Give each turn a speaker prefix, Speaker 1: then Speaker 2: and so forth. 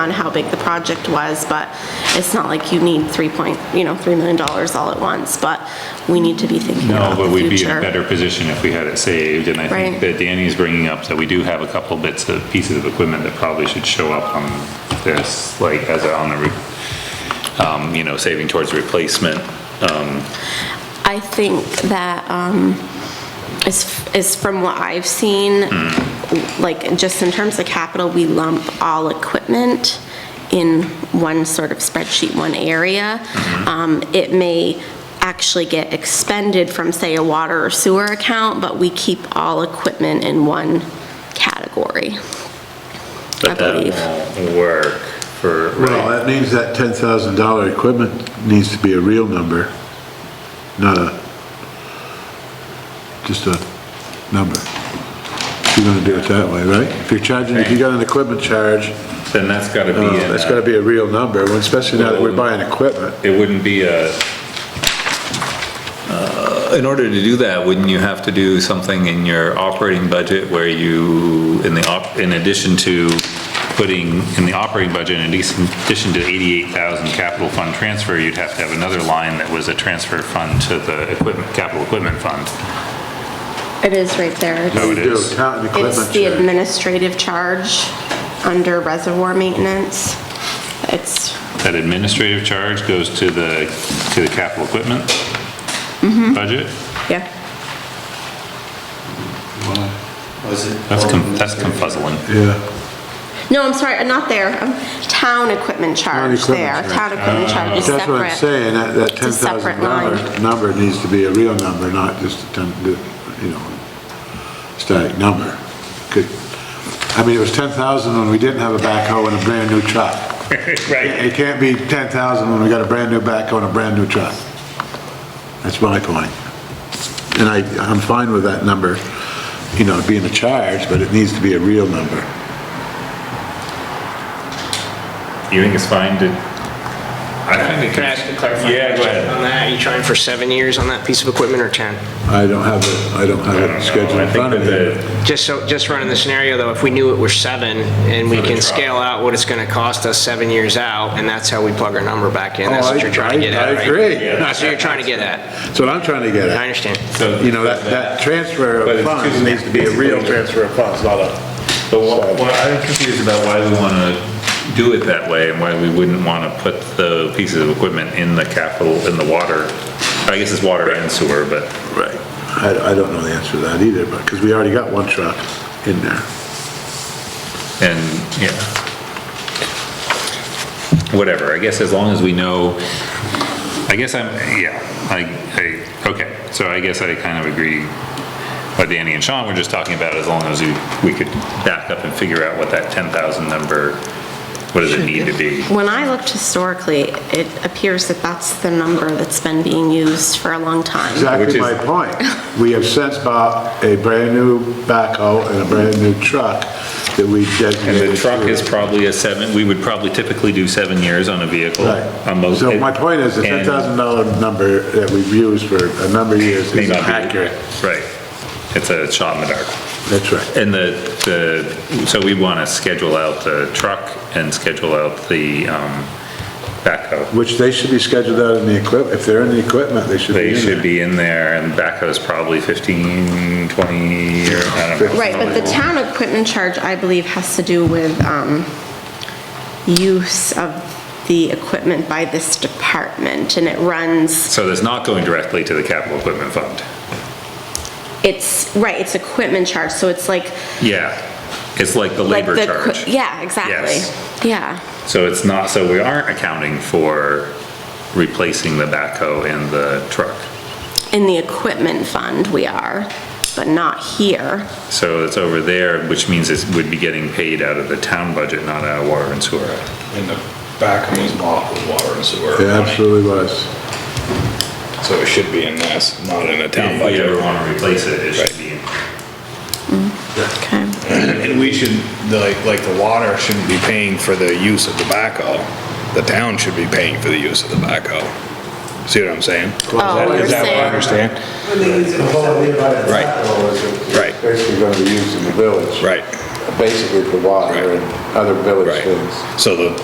Speaker 1: on how big the project was, but it's not like you need 3 point, you know, $3 million all at once, but we need to be thinking
Speaker 2: No,
Speaker 1: about
Speaker 2: but
Speaker 1: the
Speaker 2: we'd be in
Speaker 1: future.
Speaker 2: a better position if we had it saved, and I
Speaker 1: Right.
Speaker 2: think that Danny's bringing up that we do have a couple bits of, pieces of equipment that probably should show up on this, like, as a, on the, re- um, you know, saving towards replacement. Um,
Speaker 1: I think that, um, is, is from what I've seen, like, just in terms of capital, we lump all equipment in one sort of spreadsheet, one area.
Speaker 2: Mm-hmm.
Speaker 1: Um, it may actually get expended from, say, a water or sewer account, but we keep all equipment in one category. I
Speaker 2: But
Speaker 1: believe.
Speaker 2: that won't work for,
Speaker 3: Well,
Speaker 2: right?
Speaker 3: that means that ten thousand dollar equipment needs to be a real number, not a, just a number. If you're gonna do it that way, right? If you're charging, if you got an equipment charge, uh,
Speaker 2: Then that's gotta be in
Speaker 3: that's gotta
Speaker 2: a,
Speaker 3: be a real number, especially now that we're buying equipment.
Speaker 2: it wouldn't be a,
Speaker 4: Uh, In order to do that, wouldn't you have to do something in your operating budget where you, in the, op- in addition to putting in the operating budget, in addition addition to 88,000 capital fund transfer, you'd have to have another line that was a transfer fund to the equipment, capital equipment fund.
Speaker 1: It is right there. It's-
Speaker 2: No, it
Speaker 3: Do
Speaker 2: is.
Speaker 3: Count an
Speaker 1: It's
Speaker 3: equipment
Speaker 1: the
Speaker 3: charge.
Speaker 1: administrative charge under reservoir maintenance. It's
Speaker 2: That administrative charge goes to the, to the capital equipment budget?
Speaker 1: Yeah,
Speaker 5: Was it?
Speaker 2: That's, com- that's confuzzling.
Speaker 3: Yeah,
Speaker 1: no, I'm sorry, not there, Um, town equipment
Speaker 3: Town
Speaker 1: charge
Speaker 3: equipment
Speaker 1: there,
Speaker 3: charge. Ah.
Speaker 1: town equipment charge is
Speaker 3: Uh, that's what I'm
Speaker 1: separate.
Speaker 3: saying, that, that ten
Speaker 1: It's a
Speaker 3: thousand
Speaker 1: separate line.
Speaker 3: dollar number needs to be a real number, not just a ten, you know, static number. Could, I mean, it was ten thousand when we didn't have a backhoe and a brand-new truck.
Speaker 2: Right.
Speaker 3: It can't be ten thousand when we got a brand-new backhoe and a brand-new truck. That's my point. And I, I'm fine with that number, you know, being a charge, but it needs to be a real number.
Speaker 2: You think it's fine to? I think it
Speaker 5: Can I ask a clarifying?
Speaker 2: Yeah, go ahead.
Speaker 5: On that, you trying for seven years on that piece of equipment or 10?
Speaker 3: I don't have it, I don't have
Speaker 2: I don't know.
Speaker 3: it scheduled
Speaker 2: I
Speaker 3: in
Speaker 2: think
Speaker 3: front of
Speaker 2: that the-
Speaker 3: me.
Speaker 5: Just so, just running the scenario though, if we knew it were seven and we
Speaker 2: For the
Speaker 5: can
Speaker 2: truck.
Speaker 5: scale out what it's gonna cost us seven years out, and that's how we plug our number back in, that's
Speaker 3: Oh,
Speaker 5: what
Speaker 3: I-
Speaker 5: you're trying to get
Speaker 3: I-
Speaker 5: at,
Speaker 3: I
Speaker 5: right?
Speaker 3: agree. Yeah.
Speaker 5: That's what you're trying to get at.
Speaker 3: That's what I'm trying to get
Speaker 5: I
Speaker 3: at.
Speaker 5: understand.
Speaker 2: So-
Speaker 3: You know, that, that transfer
Speaker 2: But
Speaker 3: of
Speaker 2: it's
Speaker 3: funds
Speaker 2: two-
Speaker 3: needs to be a real transfer of funds, not a...
Speaker 2: But what, what I'm confused about why we want to do it that way and why we wouldn't want to put the pieces of equipment in the capital, in the water. I guess it's water and sewer, but.
Speaker 3: Right. I, I don't know the answer to that either, but, because we already got one truck in there.
Speaker 2: And, yeah. Whatever, I guess as long as we know, I guess I'm, yeah, I, I, okay, so I guess I kind of agree what Danny and Sean were just talking about, as long as we, we could back up and figure out what that ten thousand number, what does it need to be?
Speaker 1: When I looked historically, it appears that that's the number that's been being used for a long time.
Speaker 3: Exactly
Speaker 2: Which is-
Speaker 3: my point. We have since bought a brand-new backhoe and a brand-new truck that we
Speaker 2: And
Speaker 3: designated...
Speaker 2: the truck is
Speaker 3: to-
Speaker 2: probably a seven, we would probably typically do seven years on a vehicle. on
Speaker 3: Right.
Speaker 2: most-
Speaker 3: So my point is, the
Speaker 2: and-
Speaker 3: $10,000 number that we've used for a number of years
Speaker 2: May
Speaker 3: is
Speaker 2: not be-
Speaker 3: accurate.
Speaker 2: Right. It's a shot in the dark.
Speaker 3: That's right.
Speaker 2: And the, the, so we want to schedule out the truck and schedule out the um, backhoe.
Speaker 3: Which they should be scheduled out in the equip, if they're in the equipment, they should be in
Speaker 2: They
Speaker 3: there.
Speaker 2: should be in there and backhoe's probably 15, 20 or I don't know.
Speaker 1: Right, but the town equipment charge, I believe, has to do with um, use of the equipment by this department, and it runs,
Speaker 2: So that's not going directly to the capital equipment fund.
Speaker 1: it's, right, it's equipment charge, so it's like,
Speaker 2: Yeah. It's like the
Speaker 1: like
Speaker 2: labor
Speaker 1: the,
Speaker 2: charge.
Speaker 1: equi- yeah, exactly,
Speaker 2: Yes.
Speaker 1: yeah.
Speaker 2: So it's not, so we aren't accounting for replacing the backhoe and the truck.
Speaker 1: In the equipment fund, we are, but not here.
Speaker 2: So it's over there, which means it would be getting paid out of the town budget, not out of water and sewer.
Speaker 6: And the back was bought with water and sewer.
Speaker 3: It absolutely was.
Speaker 6: So it should be in this, not in a town
Speaker 2: If we ever
Speaker 6: budget.
Speaker 2: want to replace it, it should be.
Speaker 1: Okay.
Speaker 6: And we should, like, like the water shouldn't be paying for the use of the backhoe. The town should be paying for the use of the backhoe. See what I'm saying?
Speaker 1: Oh, you're
Speaker 6: Is that what I
Speaker 1: saying,
Speaker 6: understand?
Speaker 3: The whole idea about the
Speaker 6: Right.
Speaker 3: backhoe is
Speaker 6: Right.
Speaker 3: basically going to be used in the village.
Speaker 6: Right.
Speaker 3: basically for water
Speaker 6: Right.
Speaker 3: and other village
Speaker 6: Right.
Speaker 3: things.
Speaker 6: So the